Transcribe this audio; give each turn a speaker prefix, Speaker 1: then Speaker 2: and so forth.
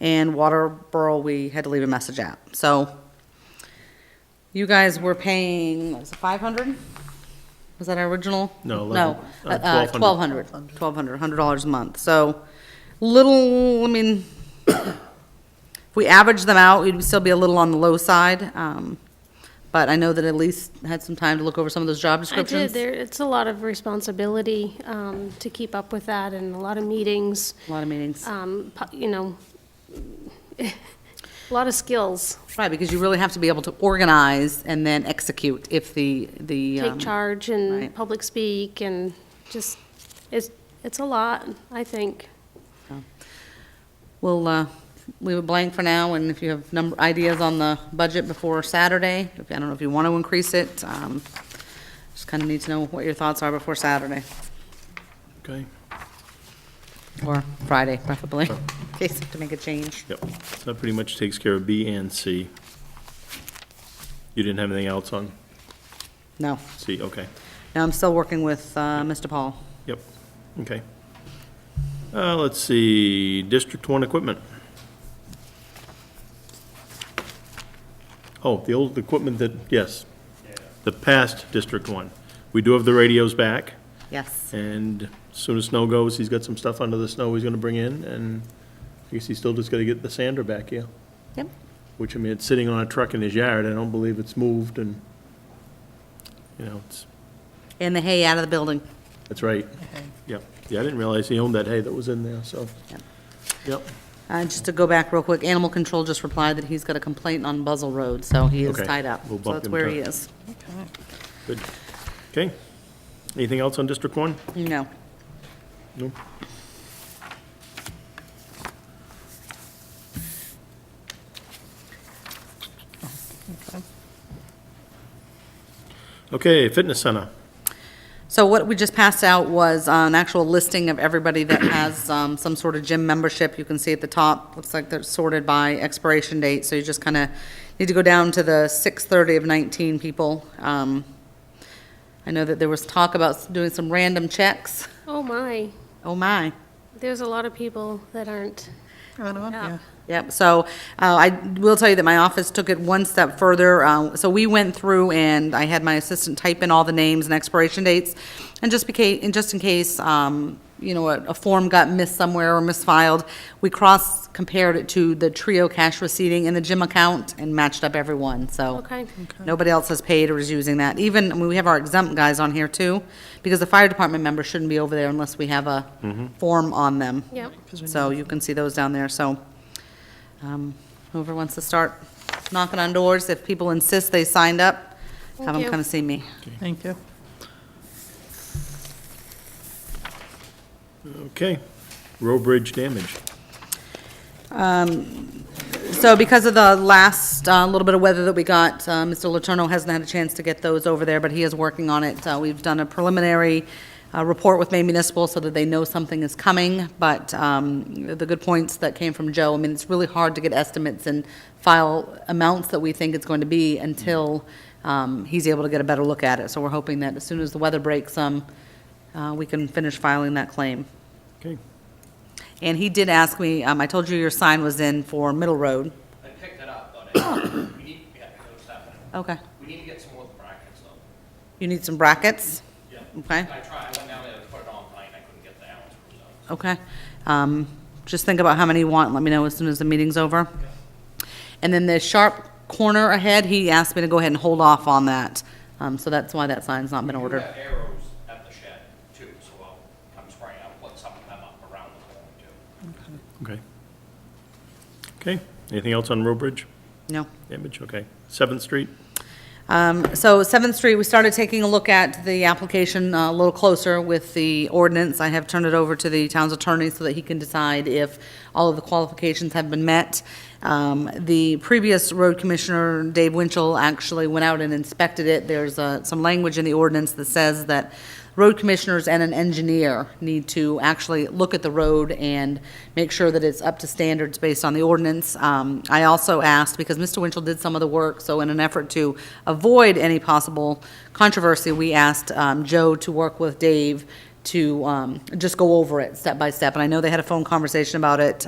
Speaker 1: and Waterboro, we had to leave a message at. So you guys were paying, what was it, 500? Was that our original?
Speaker 2: No,
Speaker 1: No,
Speaker 2: eleven- uh,
Speaker 1: uh, 1,200, $1,200,
Speaker 2: 1,200.
Speaker 1: $100 a month. So little, I mean, if we average them out, we'd still be a little on the low side. um, But I know that Elise had some time to look over some of those job
Speaker 3: I did.
Speaker 1: descriptions.
Speaker 3: There, it's a lot of responsibility um, to keep up with that and a lot of meetings,
Speaker 1: A lot of meetings.
Speaker 3: um, pu- you know, a lot of skills.
Speaker 1: Right, because you really have to be able to organize and then execute if the, the.
Speaker 3: Take
Speaker 1: um,
Speaker 3: charge
Speaker 1: right.
Speaker 3: and public speak and just, it's, it's a lot, I think.
Speaker 1: We'll uh, leave it blank for now, and if you have number, ideas on the budget before Saturday, if- I don't know if you want to increase it, um, just kind of need to know what your thoughts are before Saturday,
Speaker 2: Okay,
Speaker 1: or Friday preferably, in case you have to make a change.
Speaker 2: yep. So that pretty much takes care of B and C. You didn't have anything else on
Speaker 1: No,
Speaker 2: C, okay.
Speaker 1: no, I'm still working with uh, Mr. Paul.
Speaker 2: Yep, okay. Uh, let's see, District One equipment. Oh, the old equipment that, yes, the past District One. We do have the radios back,
Speaker 1: Yes,
Speaker 2: and as soon as snow goes, he's got some stuff under the snow he's gonna bring in, and I guess he's still just gotta get the sander back, yeah?
Speaker 1: yep,
Speaker 2: Which, I mean, it's sitting on a truck in his yard, I don't believe it's moved, and, you know, it's,
Speaker 1: and the hay out of the building.
Speaker 2: that's right. Yep, yeah, I didn't realize he owned that hay that was in there, so.
Speaker 1: Yep.
Speaker 2: Yep,
Speaker 1: Uh, Just to go back real quick, Animal Control just replied that he's got a complaint on Buzzell Road, so he is
Speaker 2: Okay,
Speaker 1: tied up.
Speaker 2: we'll
Speaker 1: So
Speaker 2: bump
Speaker 1: that's
Speaker 2: him
Speaker 1: where
Speaker 2: to-
Speaker 1: he is.
Speaker 2: good. Okay, anything else on District One?
Speaker 1: No.
Speaker 2: No? Okay, Fitness Center,
Speaker 1: So what we just passed out was uh, an actual listing of everybody that has um, some sort of gym membership. You can see at the top, looks like they're sorted by expiration date, so you just kind of need to go down to the 6:30 of 19 people. Um, I know that there was talk about doing some random checks.
Speaker 3: Oh, my,
Speaker 1: Oh, my.
Speaker 3: there's a lot of people that aren't
Speaker 4: Yeah.
Speaker 3: up.
Speaker 1: Yep, so uh, I will tell you that my office took it one step further. Uh, So we went through and I had my assistant type in all the names and expiration dates. And just became, and just in case, um, you know, a a form got missed somewhere or misfiled, we cross-compared it to the Trio cash receipting and the gym account and matched up everyone, so.
Speaker 3: Okay.
Speaker 1: Nobody else has paid or is using that. Even, I mean, we have our exempt guys on here too, because the fire department member shouldn't be over there unless we have a form on them.
Speaker 3: Yep.
Speaker 1: So you can see those down there, so um, whoever wants to start knocking on doors, if people insist they signed up, have them
Speaker 3: Thank you.
Speaker 1: come see me.
Speaker 4: Thank you.
Speaker 2: okay. Row bridge damage.
Speaker 1: So because of the last uh, little bit of weather that we got, uh, Mr. Letourneau hasn't had a chance to get those over there, but he is working on it. Uh, We've done a preliminary uh, report with Maine Municipal so that they know something is coming, but um, the good points that came from Joe, I mean, it's really hard to get estimates and file amounts that we think it's going to be until um, he's able to get a better look at it. So we're hoping that as soon as the weather breaks some, uh, we can finish filing that claim.
Speaker 2: Okay,
Speaker 1: And he did ask me, um, I told you your sign was in for Middle Road.
Speaker 5: I picked it up, but I, we need, yeah, I know it's happening.
Speaker 1: Okay.
Speaker 5: We need to get some more brackets though.
Speaker 1: You need some brackets?
Speaker 5: Yeah.
Speaker 1: Okay,
Speaker 5: I tried, I went down there to put it on mine, I couldn't get the Allen screws out.
Speaker 1: okay. Um, Just think about how many you want, let me know as soon as the meeting's over. And then the sharp corner ahead, he asked me to go ahead and hold off on that. Um, So that's why that sign's not been
Speaker 5: We
Speaker 1: ordered.
Speaker 5: have arrows at the shed too, so I'll come spray, I'll put some of them up around the corner too.
Speaker 2: okay. Okay, anything else on row bridge
Speaker 1: No.
Speaker 2: damage? Okay. Seventh Street?
Speaker 1: Um, So Seventh Street, we started taking a look at the application uh, a little closer with the ordinance. I have turned it over to the town's attorney so that he can decide if all of the qualifications have been met. Um, The previous road commissioner, Dave Winchell, actually went out and inspected it. There's uh, some language in the ordinance that says that road commissioners and an engineer need to actually look at the road and make sure that it's up to standards based on the ordinance. Um, I also asked, because Mr. Winchell did some of the work, so in an effort to avoid any possible controversy, we asked um, Joe to work with Dave to um, just go over it step by step. And I know they had a phone conversation about it